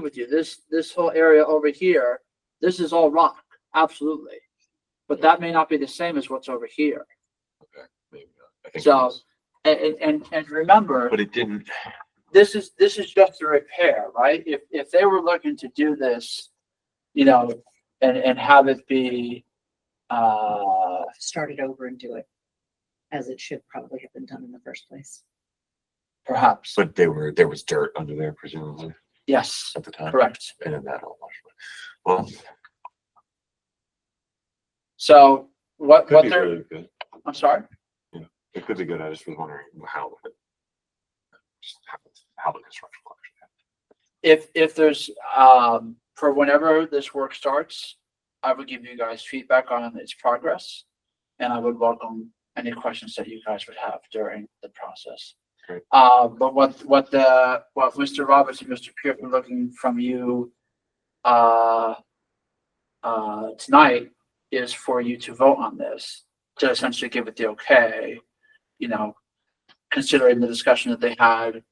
with you. This, this whole area over here, this is all rock, absolutely. But that may not be the same as what's over here. Maybe not. I think it So- is. And, and, and, and remember, But it didn't, this is, this is just a repair, right? If, if they were looking to do this, you know, and, and have it be, uh, start it over and do it as it should probably have been done in the first place. perhaps, but they were, there was dirt under there presumably yes, at the time. correct. And then that all washed. away. Well, So what, could what be they're, really good. I'm sorry? It could be good. I just was wondering how. just How how the construction. will actually happen. if if there's um for whenever this work starts, I would give you guys feedback on its progress. And I would welcome any questions that you guys would have during the process. Great. Uh, but what what the what Mr. Roberts and Mr. Pierce were looking from you uh uh tonight is for you to vote on this to essentially give it the okay, you know, considering the discussion that they had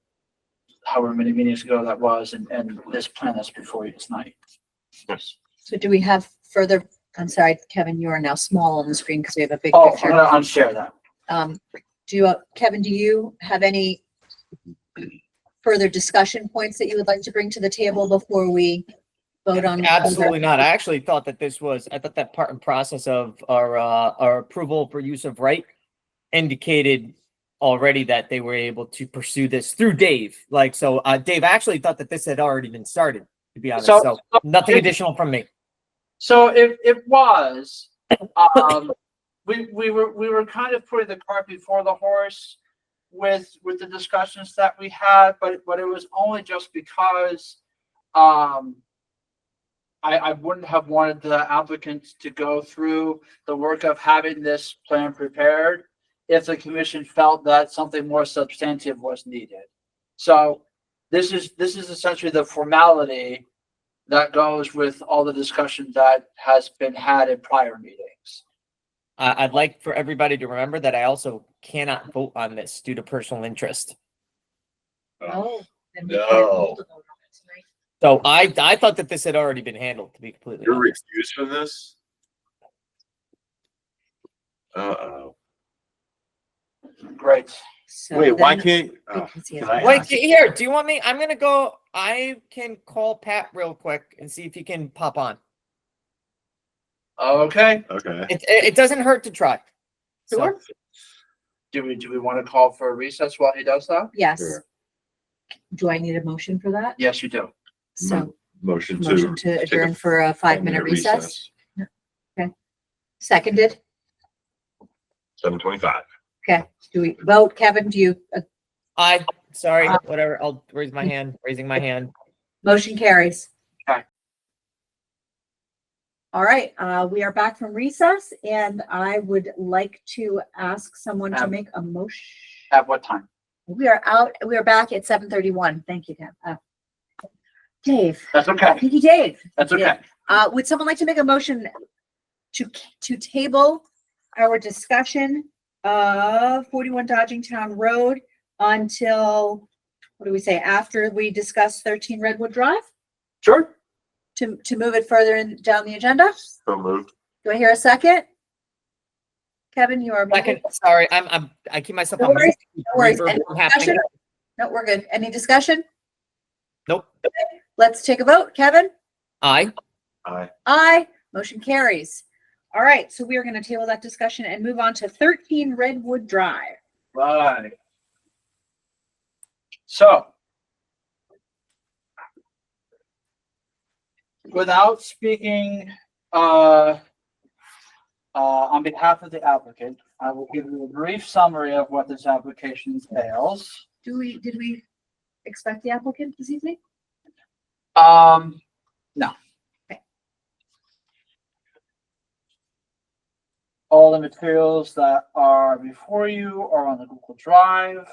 however many meetings ago that was, and, and this plan that's before you tonight. Yes. So do we have further, I'm sorry, Kevin, you are now small on the screen because we have a big Oh, I'm picture. gonna unshare that. Um, do, you, uh, Kevin, do you have any further discussion points that you would like to bring to the table before we vote on? whether- Absolutely not. I actually thought that this was, I thought that part and process of our, uh, our approval for use of right indicated already that they were able to pursue this through Dave. Like, so, uh, Dave, I actually thought that this had already been started, to be honest. So- So nothing additional from me. So it, it was, um, we, we were, we were kind of putting the cart before the horse with, with the discussions that we had, but, but it was only just because, um, I, I wouldn't have wanted the applicants to go through the work of having this plan prepared if the commission felt that something more substantive was needed. So this is, this is essentially the formality that goes with all the discussion that has been had in prior meetings. I, I'd like for everybody to remember that I also cannot vote on this due to personal interest. Uh, Oh, then we can't hold a vote on it tonight. So I, I thought that this had already been handled, to be completely You're honest. refused from this? Uh-oh. Great. So Wait, why then can't, we oh, can see can it. I Wait, ask? here, do you want me? I'm gonna go, I can call Pat real quick and see if he can pop on. Okay. okay. It, it, it doesn't hurt to try. So- Sure. Do we, do we want to call for a recess while he does that? Yes. Sure. Do I need a motion for that? Yes, you do. So Motion to. motion to take a adjourn for a five-minute Mm-hmm. five-minute recess, seconded? Seven twenty-five. Do we vote, Kevin? Do you, uh, I, sorry, Uh, whatever, I'll raise my hand, raising my hand. motion carries? Aye. All right, uh, we are back from recess and I would like to ask someone to Um, make a motion. At what time? We are out, we are back at seven thirty-one. Thank you, Kev. Uh, Dave, That's okay. Thank you, Dave. That's okay. Yeah. Uh, would someone like to make a motion to, to table our discussion of forty-one Dodging Town Road until, what do we say, after we discuss thirteen Redwood Drive? Sure. To, to move it further in, down the agenda? So moved. Do I hear a second? Kevin, you are. Second, sorry, I'm, I'm, I keep myself. on No worries, mute. no worries. Reverb Any from happening. discussion? No, we're good. Any discussion? Nope, Let's take a vote. Kevin? I, Aye. Aye. Motion carries. All right, so we are going to table that discussion and move on to thirteen Redwood Drive. Right. So. Without speaking, uh, uh, on behalf of the applicant, I will give you a brief summary of what this application entails. Do we, did we expect the applicant this evening? Um, no. Okay. All the materials that are before you are on the Google Drive.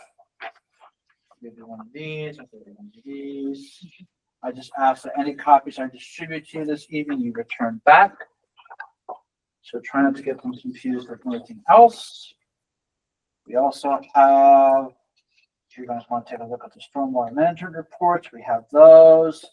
Maybe one of these, I'll give you one of these. I just ask that any copies I distribute to you this evening, you return back. So try not to get them confused with anything else. We also have if you guys want to take a look at the stormwater management reports, we have those.